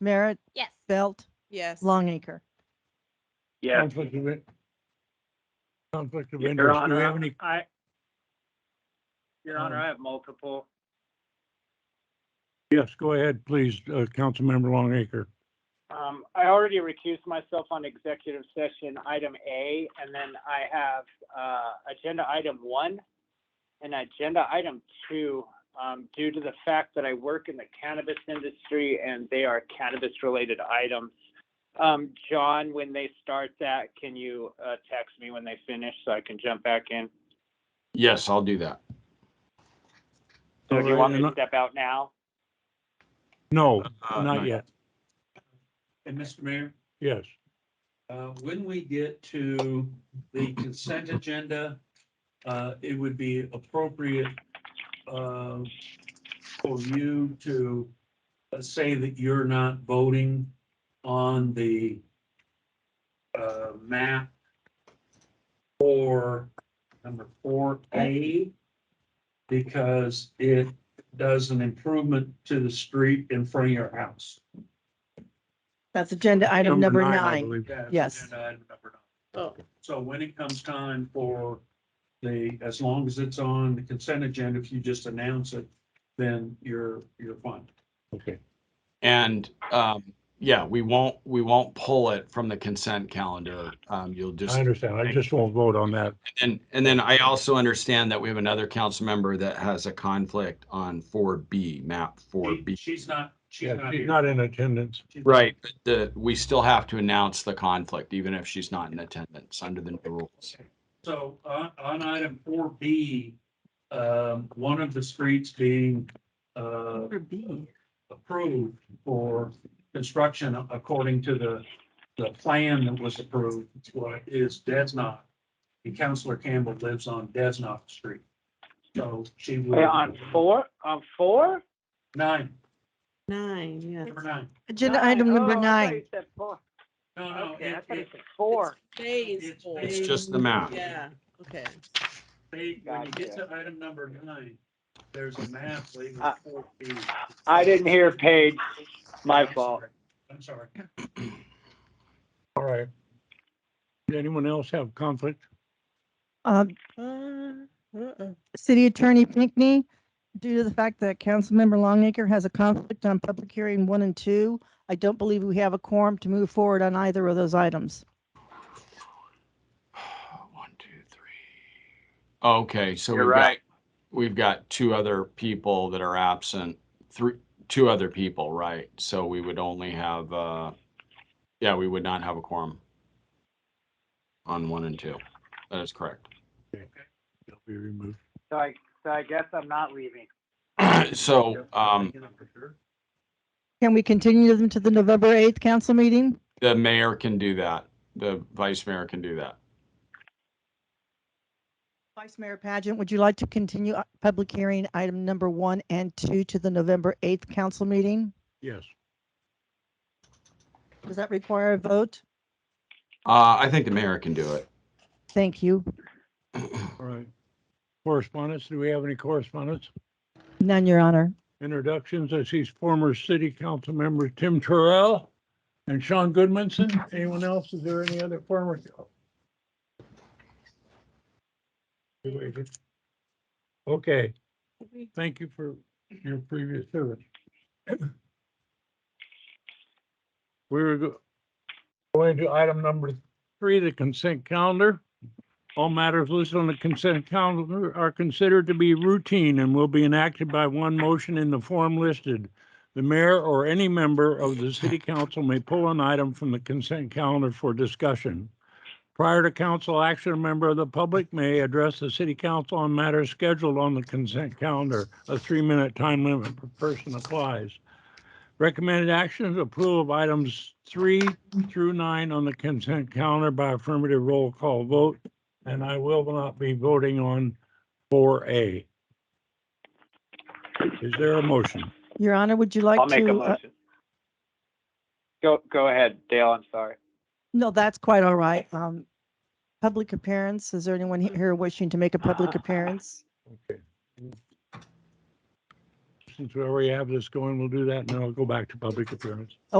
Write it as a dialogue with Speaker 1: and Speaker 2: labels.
Speaker 1: Merritt,
Speaker 2: Yes.
Speaker 1: Belt,
Speaker 3: Yes.
Speaker 1: Longacre.
Speaker 4: Yes,
Speaker 5: Conflict of in- Conflict of
Speaker 4: Your
Speaker 5: interest. Do we
Speaker 4: Honor,
Speaker 5: have any,
Speaker 4: I, Your Honor,
Speaker 5: Um,
Speaker 4: I have multiple.
Speaker 5: yes, go ahead, please, uh, Councilmember Longacre.
Speaker 4: Um, I already recused myself on executive session item A, and then I have, uh, agenda item one and agenda item two, um, due to the fact that I work in the cannabis industry and they are cannabis-related items. Um, John, when they start that, can you, uh, text me when they finish so I can jump back in?
Speaker 6: Yes, I'll do that.
Speaker 4: So do you
Speaker 5: Alright,
Speaker 4: want me to
Speaker 5: and
Speaker 4: step out now?
Speaker 5: No,
Speaker 6: Uh,
Speaker 5: not yet.
Speaker 7: And Mr. Mayor,
Speaker 5: Yes.
Speaker 7: uh, when we get to the consent agenda, uh, it would be appropriate uh, for you to uh, say that you're not voting on the uh, map for number four A because it does an improvement to the street in front of your house.
Speaker 1: That's agenda item number
Speaker 5: I
Speaker 1: nine.
Speaker 5: believe.
Speaker 7: Yeah,
Speaker 1: Yes.
Speaker 7: agenda item uh, number nine. So when it comes time for the, as long as it's on the consent agenda, if you just announce it, then you're, you're fine.
Speaker 5: Okay.
Speaker 6: And, um, yeah, we won't, we won't pull it from the consent calendar. Um, you'll just,
Speaker 5: I understand. I just won't vote on that.
Speaker 6: and, and then I also understand that we have another council member that has a conflict on four B, map four
Speaker 7: She-
Speaker 6: B.
Speaker 7: She's not, she's
Speaker 5: Yeah,
Speaker 7: not
Speaker 5: she's
Speaker 7: here.
Speaker 5: not in attendance.
Speaker 7: She's-
Speaker 6: Right, but the, we still have to announce the conflict, even if she's not in attendance under the new rules.
Speaker 7: So on, on item four B, um, one of the streets being, uh,
Speaker 1: Number B.
Speaker 7: approved for construction according to the, the plan that was approved, what is Desnok. And Counselor Campbell lives on Desnok Street. So she would.
Speaker 4: Yeah, On four, on four?
Speaker 7: Nine,
Speaker 3: Nine, yes.
Speaker 7: number nine.
Speaker 1: Agenda
Speaker 4: Nine.
Speaker 1: item number
Speaker 4: Oh, I thought
Speaker 1: nine.
Speaker 4: you said four.
Speaker 7: No, no,
Speaker 4: Okay, I
Speaker 7: Oh, it,
Speaker 4: thought you
Speaker 7: it,
Speaker 4: said four.
Speaker 3: Phase
Speaker 7: It's
Speaker 3: four.
Speaker 7: phase-
Speaker 6: It's just the map.
Speaker 3: Yeah, okay.
Speaker 7: they, when you get to item number nine, there's a map labeled
Speaker 4: Uh,
Speaker 7: four B.
Speaker 4: I didn't hear Paige. My fault.
Speaker 7: I'm sorry.
Speaker 5: All right. Does anyone else have conflict?
Speaker 1: Um,
Speaker 3: Uh, uh-uh.
Speaker 1: City Attorney Pinckney, due to the fact that Councilmember Longacre has a conflict on public hearing one and two, I don't believe we have a quorum to move forward on either of those items.
Speaker 6: One, two, three. Okay, so
Speaker 4: You're
Speaker 6: we've got-
Speaker 4: right.
Speaker 6: We've got two other people that are absent, three, two other people, right? So we would only have, uh, yeah, we would not have a quorum on one and two. That is correct.
Speaker 5: They'll be removed.
Speaker 4: So I, so I guess I'm not leaving.
Speaker 6: So, um,
Speaker 1: Can we continue them to the November 8th council meeting?
Speaker 6: the mayor can do that. The vice mayor can do that.
Speaker 1: Vice Mayor Pageant, would you like to continue uh, public hearing item number one and two to the November 8th council meeting?
Speaker 5: Yes.
Speaker 1: Does that require a vote?
Speaker 6: Uh, I think the mayor can do it.
Speaker 1: Thank you.
Speaker 5: All right. Correspondence, do we have any correspondence?
Speaker 1: None, Your Honor.
Speaker 5: Introductions, I see former city council member Tim Terrell and Sean Goodmanson. Anyone else? Is there any other former? You waited. Okay, thank you for your previous service. We were go- going to item number three, the consent calendar. All matters listed on the consent calendar are considered to be routine and will be enacted by one motion in the form listed. The mayor or any member of the city council may pull an item from the consent calendar for discussion. Prior to council action, a member of the public may address the city council on matters scheduled on the consent calendar. A three-minute time limit per person applies. Recommended actions, approval of items three through nine on the consent calendar by affirmative roll call vote. And I will not be voting on four A. Is there a motion?
Speaker 1: Your Honor, would you like
Speaker 4: I'll
Speaker 1: to?
Speaker 4: make a
Speaker 1: uh,
Speaker 4: motion. Go, go ahead, Dale, I'm sorry.
Speaker 1: No, that's quite all right. Um, public appearance, is there anyone he- here wishing to make a public appearance?
Speaker 5: Since we already have this going, we'll do that and then I'll go back to public appearance.